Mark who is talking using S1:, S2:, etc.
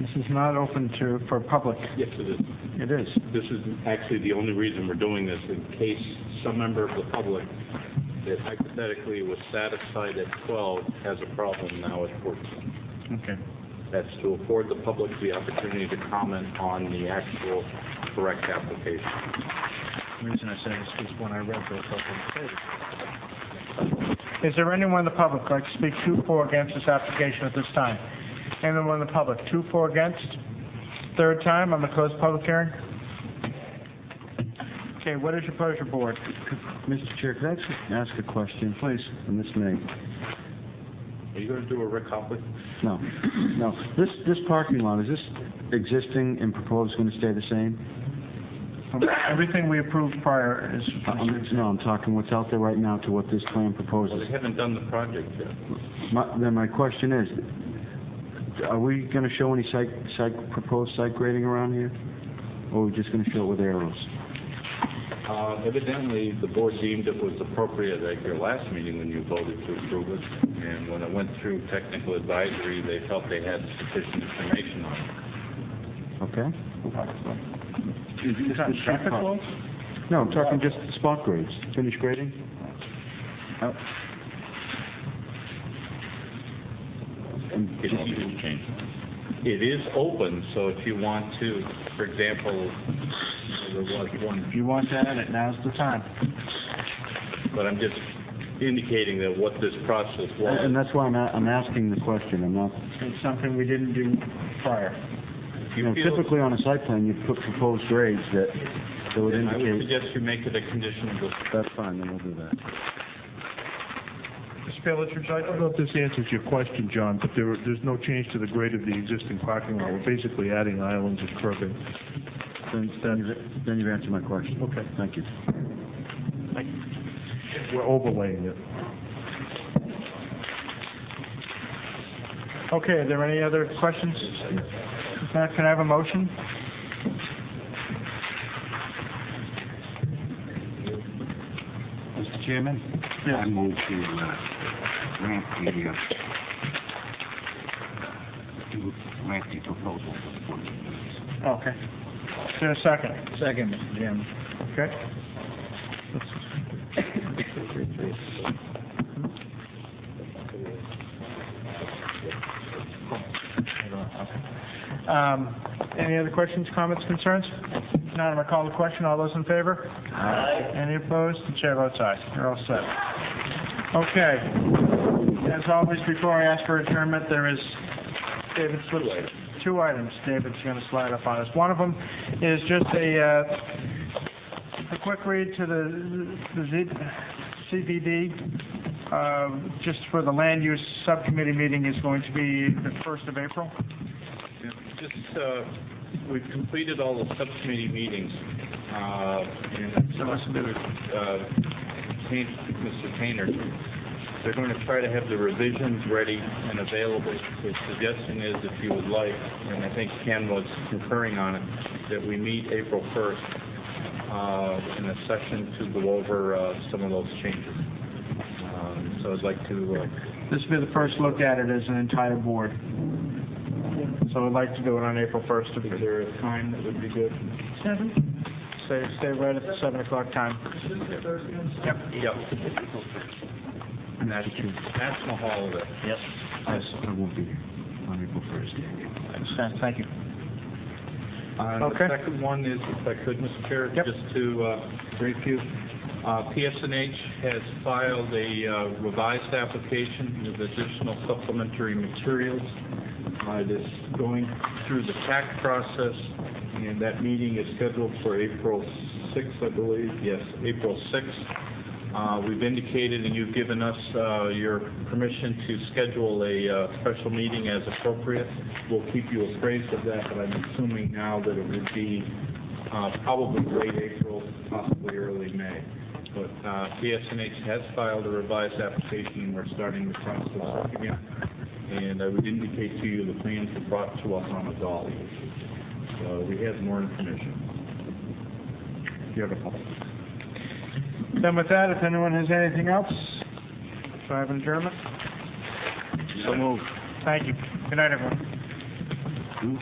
S1: This is not open to, for public.
S2: Yes, it is.
S1: It is.
S2: This is actually the only reason we're doing this, in case some member of the public that hypothetically was satisfied at 12 has a problem now at 14.
S1: Okay.
S2: That's to afford the public the opportunity to comment on the actual correct application.
S1: The reason I said this was when I read the open Is there anyone in the public who'd like to speak to or against this application at this time? Anyone in the public, two for against? Third time on the closed public hearing? Okay, what is your pleasure, board?
S3: Mr. Chair, could I actually ask a question, please? And this may,
S2: Are you going to do a Rick Hoppy?
S3: no, no. This, this parking lot, is this existing and proposed going to stay the same?
S1: Um, Everything we approved prior Uh, um, is...
S3: Uh, I'm- No, I'm talking what's out there right now to what this plan
S2: Well, they
S3: proposes.
S2: haven't done the project yet.
S3: My- Then my question is, are we going to show any site, site, proposed site grading around here? Or are we just going to show it with arrows?
S2: Uh, Evidently, the board deemed it was appropriate at your last meeting when you voted to approve it, and when it went through technical advisory, they felt they had sufficient information on it.
S3: Okay?
S1: Is that traffic law?
S3: No, I'm talking just spot grades, finish grading? And-
S2: It is It is open, so if you want to, for example, there was one,
S1: If you want to add it, now's the time.
S2: but I'm just indicating that what this process
S3: And
S2: was.
S3: that's why I'm, a- I'm asking the question, I'm not
S1: It's something we didn't do prior.
S2: If
S3: You
S2: you
S3: know,
S2: feel-
S3: typically on a site plan, you put proposed grades that, that would
S2: I would
S3: indicate,
S2: suggest you make it a condition of the
S3: that's fine, then we'll do that.
S1: Mr. Bayless, would you like
S4: I don't know if this answers your question, John, but there, there's no change to the grade of the existing parking lot. We're basically adding islands of curbing.
S3: Then, then you've- then you've answered my question.
S4: Okay.
S3: Thank you.
S4: We're overlaying it.
S1: Okay, are there any other questions? Uh, Can I have a motion?
S5: Mr. Chairman? I move to uh, grant the, uh, to grant the proposal for the 14 days.
S1: Okay. Is there a second? Second, Mr. Jim. Okay. Um, Any other questions, comments, concerns? If not, I'm going to call the question. All those in favor? Aye. Any opposed? The chair votes aye. You're all set. Okay. As always, before I ask for adjournment, there is David Slip's two items David's going to slide up on us. One of them is just a, uh, a quick read to the the Z- CVD, uh, just for the land use subcommittee meeting is going to be the 1st of April.
S2: Yeah, Just, uh, we've completed all the subcommittee meetings, uh, and I talked to, uh, Tain- Mr. Taynor. They're going to try to have the revisions ready and available. The suggestion is, if you would like, and I think Ken was concurring on it, that we meet April 1st uh, in a session to go over uh, some of those changes. Um, So I'd like to uh,
S1: This will be the first look at it as an entire board. So I'd like to do it on April 1st. Is there a time that would be good? Seven. Stay, stay right at the 7 o'clock time.
S2: Yep. National National holiday. Yep.
S3: I I won't be here on April 1st.
S1: Thank you.
S2: Uh,
S1: Okay.
S2: The second one is, if I could, Mr. Chair,
S1: Yep.
S2: just to uh, brief you, uh, PSNH has filed a uh, revised application with additional supplementary materials. Uh, It is going through the TAC process, and that meeting is scheduled for April 6th, I believe, yes, April 6th. Uh, We've indicated, and you've given us uh, your permission to schedule a uh, special meeting as appropriate. We'll keep you appraised of that, but I'm assuming now that it would be uh, probably late April, possibly early May. But uh, PSNH has filed a revised application, and we're starting the process again. And I would indicate to you the plans were brought to us on a dolly. So we have more information.
S3: Beautiful.
S1: Then with that, if anyone has anything else, do I have an adjournment?
S2: So moved.
S1: Thank you. Good night, everyone.